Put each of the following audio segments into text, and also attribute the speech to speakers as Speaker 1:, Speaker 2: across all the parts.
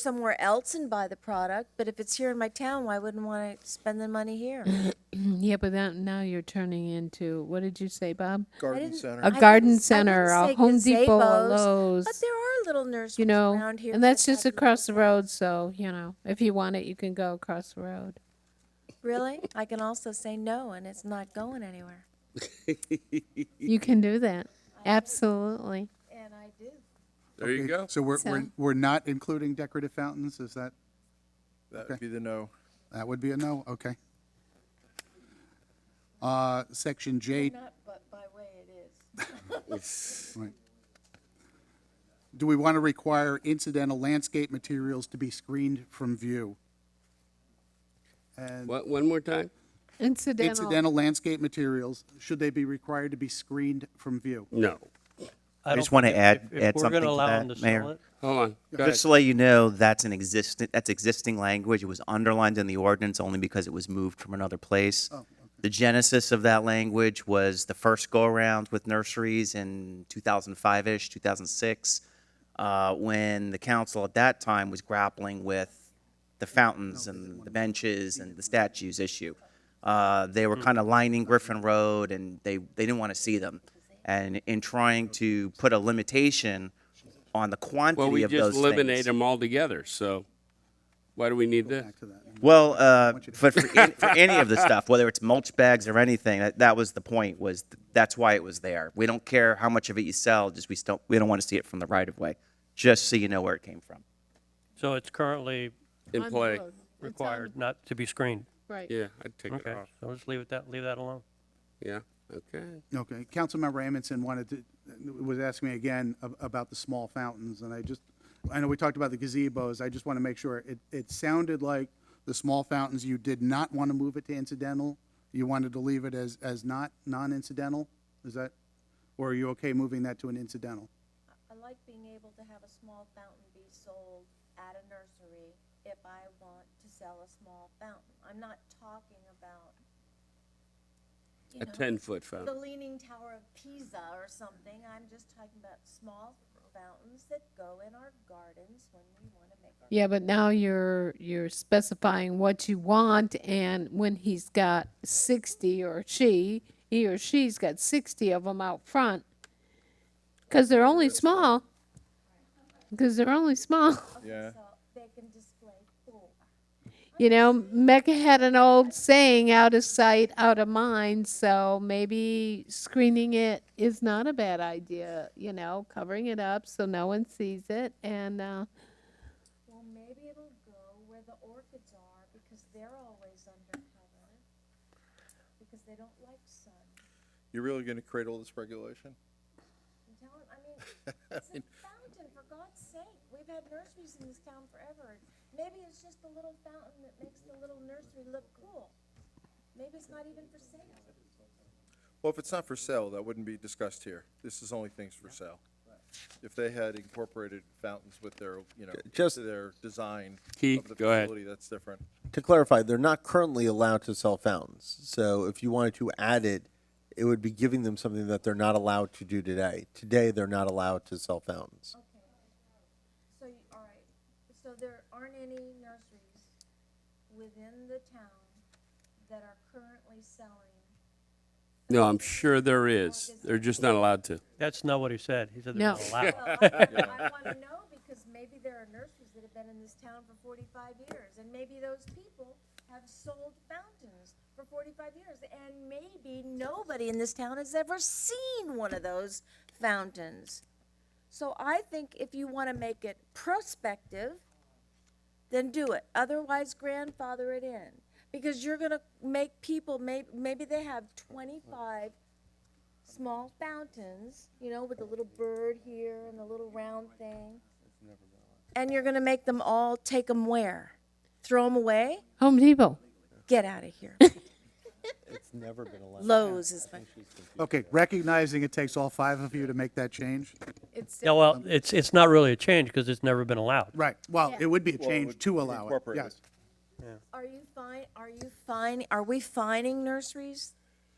Speaker 1: somewhere else and buy the product, but if it's here in my town, why wouldn't want to spend the money here?
Speaker 2: Yeah, but that, now you're turning into, what did you say, Bob?
Speaker 1: I
Speaker 3: garden
Speaker 1: didn't- Oh,
Speaker 3: center.
Speaker 1: I
Speaker 2: A
Speaker 1: didn't- I
Speaker 2: garden
Speaker 1: didn't
Speaker 2: center, a
Speaker 1: say
Speaker 2: Home Depot, a
Speaker 1: gazebos, But
Speaker 2: Lowe's,
Speaker 1: there are little nurseries
Speaker 2: you know?
Speaker 1: around here.
Speaker 2: And that's
Speaker 1: that
Speaker 2: just
Speaker 1: have little-
Speaker 2: across the road, so, you know, if you want it, you can go across the road.
Speaker 1: Really? I can also say no, and it's not going anywhere.
Speaker 2: You can do that, absolutely.
Speaker 1: And I do.
Speaker 4: There you
Speaker 5: Okay,
Speaker 4: go.
Speaker 5: So we're, we're,
Speaker 2: So-
Speaker 5: we're not including decorative fountains, is that,
Speaker 3: That would be the no.
Speaker 5: that would be a no, okay. Uh, section J,
Speaker 1: Not, but by way it is.
Speaker 5: right. Do we want to require incidental landscape materials to be screened from view? And
Speaker 4: What, one more time?
Speaker 2: Incidental,
Speaker 5: incidental landscape materials, should they be required to be screened from view?
Speaker 4: No.
Speaker 6: I
Speaker 7: just
Speaker 6: don't
Speaker 7: wanna
Speaker 6: think-
Speaker 7: add-
Speaker 6: if- if
Speaker 7: add
Speaker 6: we're
Speaker 7: something
Speaker 6: gonna
Speaker 7: to
Speaker 6: allow
Speaker 7: that,
Speaker 6: them sell
Speaker 7: Mayor.
Speaker 6: it,
Speaker 4: Hold on. Go ahead.
Speaker 7: Just to let you know, that's an existing, that's existing language. It was underlined in the ordinance only because it was moved from another place.
Speaker 4: Oh,
Speaker 7: The genesis of that language was the first go-around with nurseries in 2005-ish, 2006, uh, when the council at that time was grappling with the fountains and the benches and the statues issue. Uh, They
Speaker 4: Hmm.
Speaker 7: were kind of lining Griffin Road, and they, they didn't want to see them. And in trying to put a limitation on the
Speaker 4: Well,
Speaker 7: quantity
Speaker 4: we
Speaker 7: of
Speaker 4: just
Speaker 7: those
Speaker 4: eliminate
Speaker 7: things.
Speaker 4: them altogether, so why do we need this?
Speaker 5: Back to that.
Speaker 7: Well, uh, but for, an- for any of the stuff, whether it's mulch bags or anything, that, that was the point, was th- that's why it was there. We don't care how much of it you sell, just we still, we don't want to see it from the right of way, just so you know where it came from.
Speaker 6: So it's currently
Speaker 4: In
Speaker 2: On the
Speaker 4: play.
Speaker 2: road.
Speaker 6: required not to be screened.
Speaker 2: right.
Speaker 4: Yeah, I'd take it
Speaker 6: Okay,
Speaker 4: off.
Speaker 6: so let's leave it that, leave that alone.
Speaker 4: Yeah, okay.
Speaker 5: Okay, Councilmember Amundson wanted to, was asking me again ab- about the small fountains, and I just, I know we talked about the gazebos, I just want to make sure, it, it sounded like the small fountains, you did not want to move it to incidental, you wanted to leave it as, as not, non-incidental, is that, or are you okay moving that to an incidental?
Speaker 1: I like being able to have a small fountain be sold at a nursery if I want to sell a small fountain. I'm not talking about, you
Speaker 4: A
Speaker 1: know,
Speaker 4: ten-foot
Speaker 1: the
Speaker 4: fountain.
Speaker 1: Leaning Tower of Pisa or something. I'm just talking about small fountains that go in our gardens when we want to make our.
Speaker 2: Yeah, but now you're, you're specifying what you want, and when he's got sixty, or she, he or she's got sixty of them out front, because they're only small, because they're only small.
Speaker 3: Yeah.
Speaker 1: So they can display four.
Speaker 2: You know, Mecca had an old saying, out of sight, out of mind. So maybe screening it is not a bad idea, you know, covering it up so no one sees it. And uh,
Speaker 1: Well, maybe it'll go where the orchids are because they're always under cover because they don't like sun.
Speaker 3: You're really going to cradle this regulation?
Speaker 1: I'm telling, I mean, it's a fountain, for God's sake. We've had nurseries in this town forever. Maybe it's just a little fountain that makes the little nursery look cool. Maybe it's not even for sale.
Speaker 3: Well, if it's not for sale, that wouldn't be discussed here. This is only things for sale. If they had incorporated fountains with their, you know,
Speaker 8: Just-
Speaker 3: their design
Speaker 4: Keith,
Speaker 3: of the
Speaker 4: go ahead.
Speaker 3: facility, that's different.
Speaker 8: To clarify, they're not currently allowed to sell fountains. So if you wanted to add it, it would be giving them something that they're not allowed to do today. Today, they're not allowed to sell fountains.
Speaker 1: Okay. So, you- all right, so there aren't any nurseries within the town that are currently selling
Speaker 4: No, I'm sure there is. They're just not allowed to.
Speaker 6: That's not what he said. He said they're
Speaker 2: No.
Speaker 6: not allowed.
Speaker 1: Well, I want to know because maybe there are nurseries that have been in this town for forty-five years, and maybe those people have sold fountains for forty-five years, and maybe nobody in this town has ever seen one of those fountains. So I think if you want to make it prospective, then do it. Otherwise, grandfather it in. Because you're gonna make people, may, maybe they have twenty-five small fountains, you know, with the little bird here and the little round thing. And you're gonna make them all take them where? Throw them away?
Speaker 2: Home Depot.
Speaker 1: Get out of here.
Speaker 8: It's never been allowed.
Speaker 1: Lowe's is my.
Speaker 5: Okay, recognizing it takes all five of you to make that change,
Speaker 2: It's
Speaker 6: Yeah, well, it's, it's not really a change because it's never been allowed.
Speaker 5: right, well, it would be a
Speaker 3: Well, it
Speaker 5: change
Speaker 3: would
Speaker 5: to allow it,
Speaker 3: incorporate
Speaker 5: yes.
Speaker 1: Are you fine, are you fine, are we fining nurseries?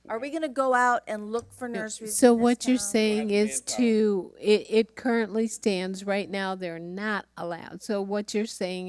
Speaker 1: Are we gonna go out and look for nurseries?
Speaker 2: So
Speaker 1: in this
Speaker 2: what you're
Speaker 1: town?
Speaker 2: saying is to, it, it currently stands, right now, they're not allowed. So what you're saying